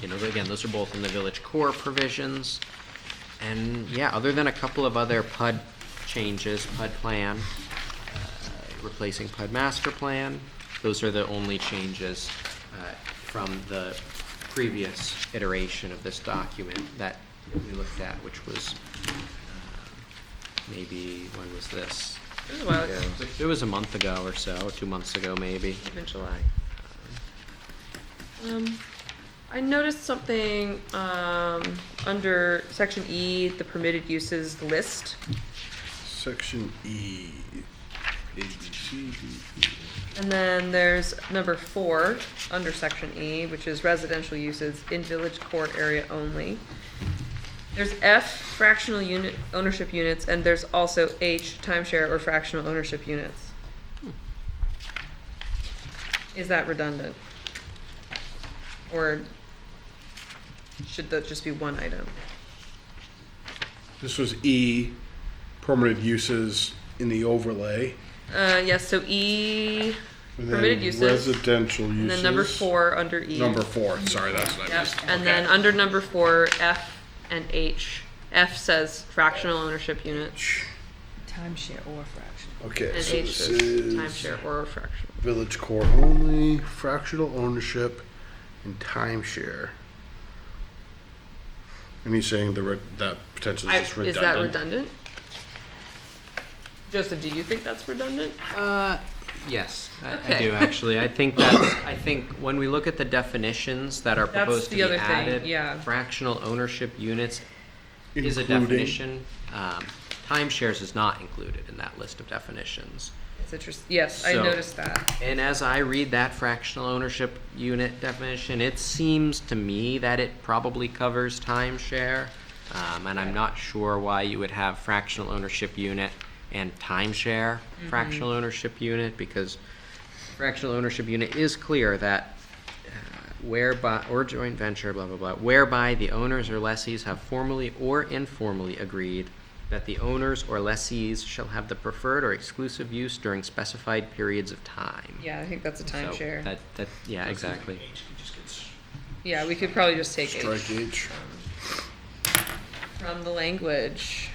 you know, again, those are both in the village core provisions. And yeah, other than a couple of other PUD changes, PUD plan, uh, replacing PUD master plan, those are the only changes uh, from the previous iteration of this document that we looked at, which was uh, maybe, when was this? It was a while, it's It was a month ago or so, two months ago maybe. in July. Um, I noticed something, um, under section E, the permitted uses list. Section E. A, B, C, D, E. And then there's number four, under section E, which is residential uses in village core area only. There's F, fractional unit, ownership units, and there's also H, timeshare or fractional ownership units. Is that redundant? Or should that just be one item? This was E, permitted uses in the overlay. Uh, yes, so E, and then permitted uses, Residential uses. and then number four under E. Number four, sorry, that's what I Yep, missed. and then under number four, F and H. F says fractional ownership unit, Timeshare or fraction. Okay, and so H this says is timeshare or fractional. village core only, fractional ownership, and timeshare. And he's saying the, re- that potentially I- is just Is that redundant. redundant? Joseph, do you think that's redundant? Uh, yes, I, I Okay. do actually. I think that's. I think when we look at the definitions that are That's proposed to the be other thing, added, yeah. fractional ownership units is a Including- definition. Um, timeshares is not included in that list of definitions. It's interesting, yes, I So- noticed that. And as I read that fractional ownership unit definition, it seems to me that it probably covers timeshare. Um, and I'm not sure why you would have fractional ownership unit and timeshare Mm-hmm. fractional ownership unit because fractional ownership unit is clear that uh, whereby or joint venture blah blah blah whereby the owners or lessees have formally or informally agreed that the owners or lessees shall have the preferred or exclusive use during specified periods of time. Yeah, I think that's a So timeshare. That that yeah exactly. Yeah, we could probably just take H Strike H. from the language.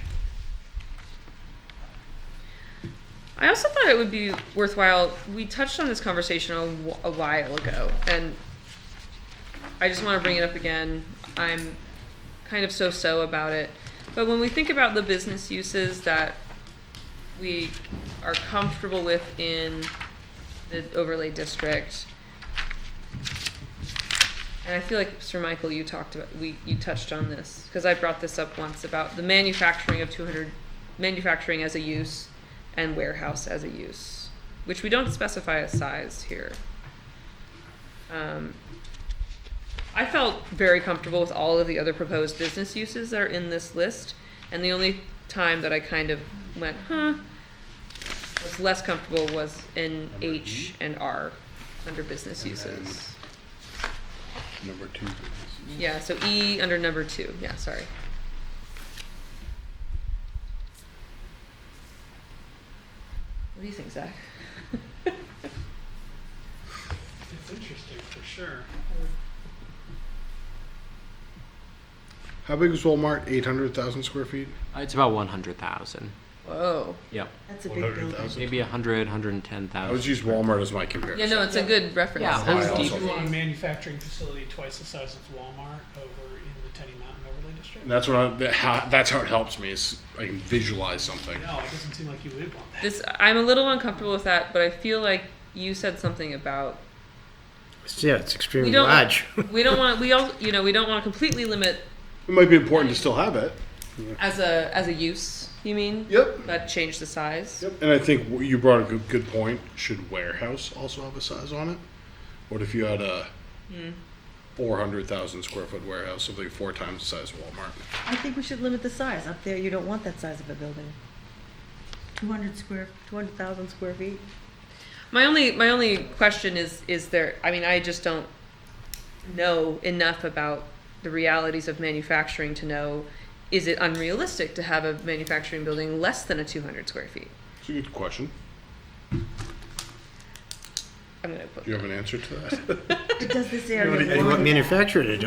I also thought it would be worthwhile. We touched on this conversation a, wh- a while ago, and I just want to bring it up again. I'm kind of so so about it. But when we think about the business uses that we are comfortable with in the overlay district, and I feel like Sir Michael, you talked about we you touched on this because I brought this up once about the manufacturing of 200 manufacturing as a use and warehouse as a use, which we don't specify a size here. Um, I felt very comfortable with all of the other proposed business uses that are in this list, and the only time that I kind of went, huh, was less comfortable was in H and R under business uses. Number two. business. Yeah, so E under number two. Yeah, sorry. What do you think, Zach? It's interesting for sure. How big is Walmart? Eight hundred thousand square feet? Uh, It's about one hundred thousand. Whoa. Yep. That's a big building. Maybe a hundred, hundred and ten I thousand. always use Walmart as my Yeah, comparison. no, it's a good reference. Yeah, Ohio Home also. Depot. You want a manufacturing facility twice the size of Walmart over in the Tenny Mountain Overlay District? And that's what I, that, how, that's how it helps me is I can visualize something. No, it doesn't seem like you would want that. This I'm a little uncomfortable with that, but I feel like you said something about Yeah, it's extremely don't- large. we don't want we all you know we don't want to completely limit It might be important to still have it. as a as a use. You mean? Yep. But change the size. Yep. And I think wh- you brought a good, good point. Should warehouse also have a size on it? What if you had a four hundred thousand square foot warehouse, something four times the size of Walmart? I think we should limit the size. Up there, you don't want that size of a building. Two hundred square, two hundred thousand square feet. My only my only question is is there I mean I just don't know enough about the realities of manufacturing to know is it unrealistic to have a manufacturing building less than a 200 square feet? It's a good question. I'm going to put Do you have an answer to that? Does this What area? what manufacturer did